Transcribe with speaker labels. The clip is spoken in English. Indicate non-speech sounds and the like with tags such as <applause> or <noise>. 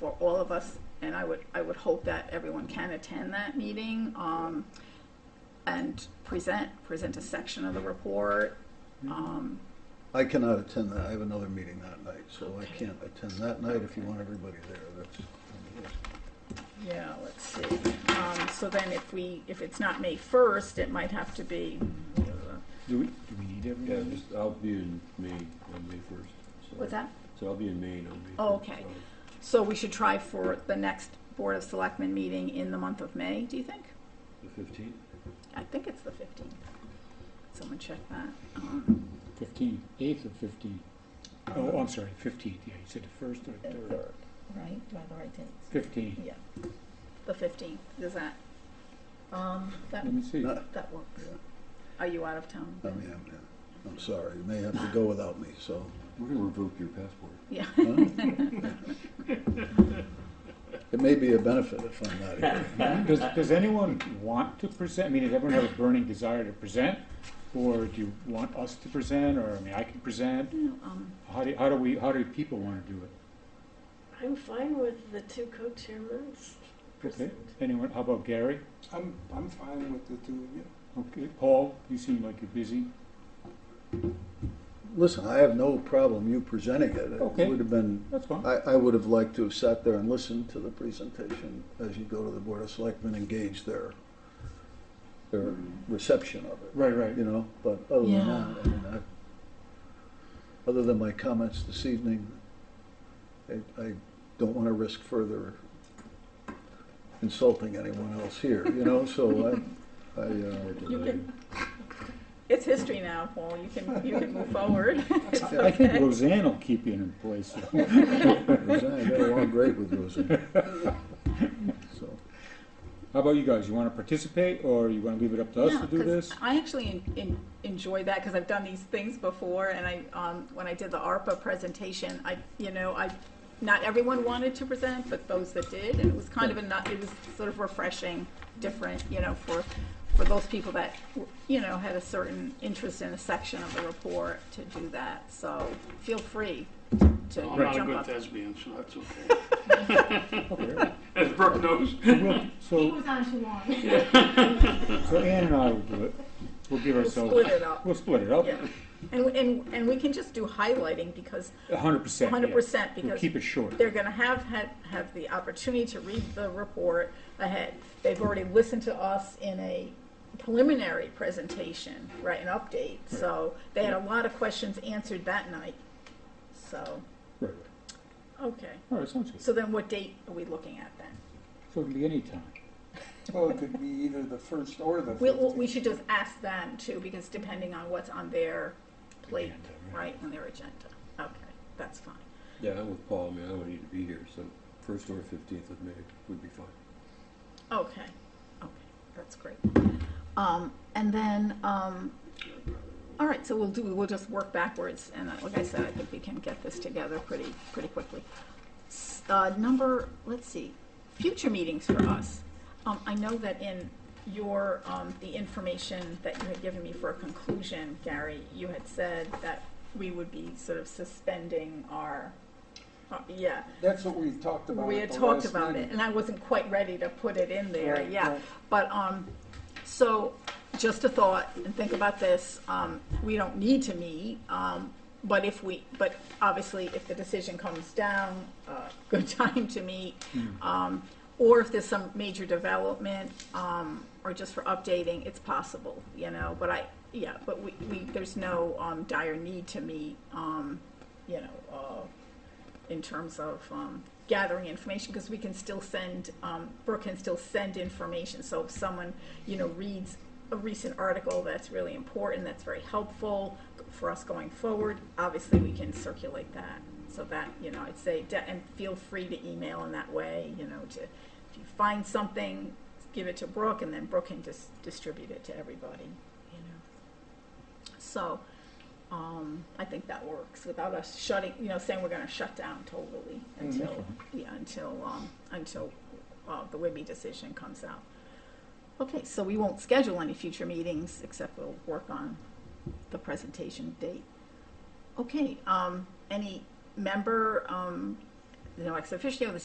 Speaker 1: for all of us, and I would, I would hope that everyone can attend that meeting, um, and present, present a section of the report. Um,
Speaker 2: I cannot attend that, I have another meeting that night, so I
Speaker 1: Okay.
Speaker 2: can't attend that night if you
Speaker 1: Okay.
Speaker 2: want everybody there, that's.
Speaker 1: yeah, let's see, um, so then if we, if it's not May first, it might have to be,
Speaker 3: Do we, do we need
Speaker 4: Yeah,
Speaker 3: everyone?
Speaker 4: just, I'll be in Maine
Speaker 3: uh,
Speaker 4: on May first. so-
Speaker 1: what's that?
Speaker 4: So I'll be in Maine on May first.
Speaker 1: Oh, okay. So we should try for the next Board of Selectmen meeting in the month of May, do you think?
Speaker 4: The fifteenth?
Speaker 1: I think it's the 15th. Someone check that. Um,
Speaker 3: Fifteen, eighth or fifteen? Oh, I'm sorry, fifteenth, yeah, you said the first or
Speaker 1: the
Speaker 3: third.
Speaker 1: third,
Speaker 5: Right, do I have the right dates?
Speaker 3: Fifteen,
Speaker 1: Yeah, the 15th, is that, um, that,
Speaker 3: let me see.
Speaker 2: Not,
Speaker 1: that works.
Speaker 2: Yeah.
Speaker 1: Are you out of town?
Speaker 2: I mean, I'm, I'm sorry, you may have to go without me, so.
Speaker 4: We're gonna revoke your passport.
Speaker 1: Yeah,
Speaker 2: huh? It may be a benefit if I'm not here.
Speaker 3: Does, does anyone want to present, I mean, does everyone have a burning desire to present? Or do you want us to present, or, I mean, I can present?
Speaker 1: <laughs> um,
Speaker 3: How do, how do we, how do people wanna do it?
Speaker 6: I'm fine with the two co-chairmans.
Speaker 3: Okay, anyone, how about Gary?
Speaker 7: I'm, I'm fine with the two of you.
Speaker 3: Okay, Paul, you seem like you're busy.
Speaker 2: Listen, I have no problem you presenting it. It
Speaker 3: Okay.
Speaker 2: would have been,
Speaker 3: That's fine.
Speaker 2: I, I would have liked to have sat there and listened to the presentation as you go to the Board of Selectmen, engage their, their reception of it,
Speaker 3: Right, right.
Speaker 2: you know? But other than
Speaker 1: Yeah.
Speaker 2: that, I mean, I, other than my comments this evening, I, I don't want to risk further insulting anyone else here, you know? So
Speaker 1: <laughs>
Speaker 2: I, I, uh,
Speaker 1: You can- it's history now, Paul, you can, you can move forward. It's
Speaker 3: I think
Speaker 1: okay.
Speaker 3: Roseanne will keep you in place.
Speaker 2: Roseanne, I got along great with Roseanne.
Speaker 1: <laughs>
Speaker 2: So.
Speaker 3: How about you guys? You want to participate, or you want to leave it up to us
Speaker 1: Yeah,
Speaker 3: to do
Speaker 1: 'cause
Speaker 3: this?
Speaker 1: I actually en- en- enjoy that because I've done these things before, and I um, when I did the ARPA presentation, I you know I not everyone wanted to present, but those that did, and it was kind of a not, it was sort of refreshing, different, you know, for for those people that w- you know had a certain interest in a section of the report to do that. So feel free to
Speaker 8: I'm not a
Speaker 1: jump
Speaker 8: good
Speaker 1: up.
Speaker 8: thespian, so that's okay.
Speaker 3: Okay.
Speaker 8: As Brooke knows.
Speaker 3: So we'll- So,
Speaker 5: was on too long.
Speaker 3: so Ann and I will do it. We'll give
Speaker 1: We'll
Speaker 3: ourselves.
Speaker 1: split it up.
Speaker 3: We'll split it up.
Speaker 1: Yeah, and and and we can just do highlighting because
Speaker 3: A hundred percent. yeah.
Speaker 1: 100%
Speaker 3: We'll
Speaker 1: because
Speaker 3: keep it short.
Speaker 1: they're going to have, had have the opportunity to read the report ahead. They've already listened to us in a preliminary presentation, right, an update. So they had a lot of questions answered that night. So,
Speaker 3: Right, right.
Speaker 1: okay.
Speaker 3: All right, sounds good.
Speaker 1: So then what date are we looking at then?
Speaker 3: So it'll be any time.
Speaker 7: Well, it could be either the first or the
Speaker 1: We, we-
Speaker 7: fifteenth.
Speaker 1: we should just ask them too, because depending on what's on their plate,
Speaker 3: Agenda,
Speaker 1: right, on their agenda. Okay, that's fine.
Speaker 4: Yeah, I'm with Paul, I mean, I don't need to be here, so first or fifteenth of May would be fine.
Speaker 1: Okay, okay, that's great. Um, and then, um, all right, so we'll do, we'll just work backwards, and uh, like I said, I think we can get this together pretty, pretty quickly. S- Uh, number, let's see, future meetings for us. Um, I know that in your, um, the information that you had given me for a conclusion, Gary, you had said that we would be sort of suspending our, uh, yeah,
Speaker 7: That's what we talked about
Speaker 1: we
Speaker 7: at
Speaker 1: had
Speaker 7: the
Speaker 1: talked
Speaker 7: last
Speaker 1: about
Speaker 7: meeting.
Speaker 1: it, and I wasn't quite ready to put it in there,
Speaker 7: Right,
Speaker 1: yeah.
Speaker 7: right.
Speaker 1: But, um, so, just a thought, and think about this, um, we don't need to meet, um, but if we, but obviously, if the decision comes down, uh, <laughs> good time to meet.
Speaker 3: Hmm.
Speaker 1: Um, or if there's some major development, um, or just for updating, it's possible, you know, but I, yeah, but we, we, there's no, um, dire need to meet, um, you know, uh, in terms of um, gathering information, because we can still send, um, Brooke can still send information. So if someone, you know, reads a recent article that's really important, that's very helpful for us going forward, obviously we can circulate that. So that, you know, I'd say, de- and feel free to email in that way, you know, to, if you find something, give it to Brooke, and then Brooke can just distribute it to everybody, you know. So, um, I think that works without us shutting, you know, saying we're gonna shut down totally until, yeah, until, um, until, uh, the WIBI decision comes out. Okay, so we won't schedule any future meetings except we'll work on the presentation date. Okay, um, any member, um, you know, ex officio, the